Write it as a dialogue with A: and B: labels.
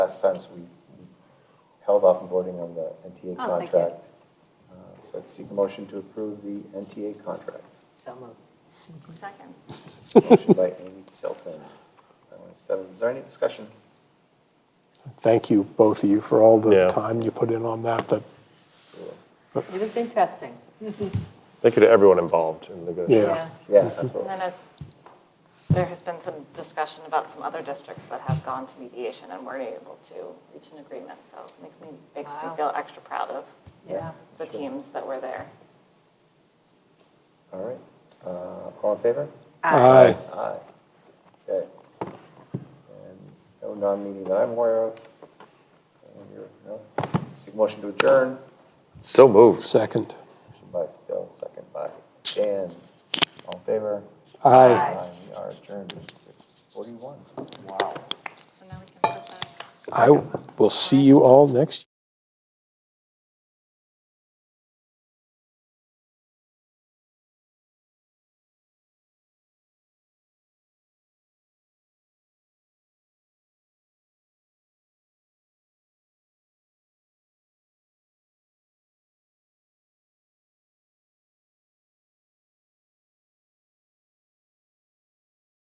A: Last times, we we held off on voting on the NTA
B: Oh, thank you.
A: contract. Uh, So I'd seek a motion to approve the NTA contract.
B: So moved.
C: Second.
A: Motion by Amy Tilton. Uh, Stebbins, Is there any discussion?
D: Thank you, both of you, for all the
E: Yeah.
D: time you put in on that. That
B: It was interesting.
E: Thank you to everyone involved in the good.
D: Yeah.
A: Yeah, absolutely.
C: And then as, there has been some discussion about some other districts that have gone to mediation and were able to reach an agreement, so it makes me, makes me
B: Wow.
C: feel extra proud of
B: Yeah.
C: the teams that were there.
A: All right. Uh, All in favor?
D: Aye.
A: Aye. Okay. And no non-meeting that I'm aware of. And you're- no? Seek motion to adjourn.
E: So moved.
D: Second.
A: Motion by Phil, second by Dan. All in favor?
D: Aye.
A: Aye. We are adjourned at 6:41.
C: So now we can put that.
D: I will see you all next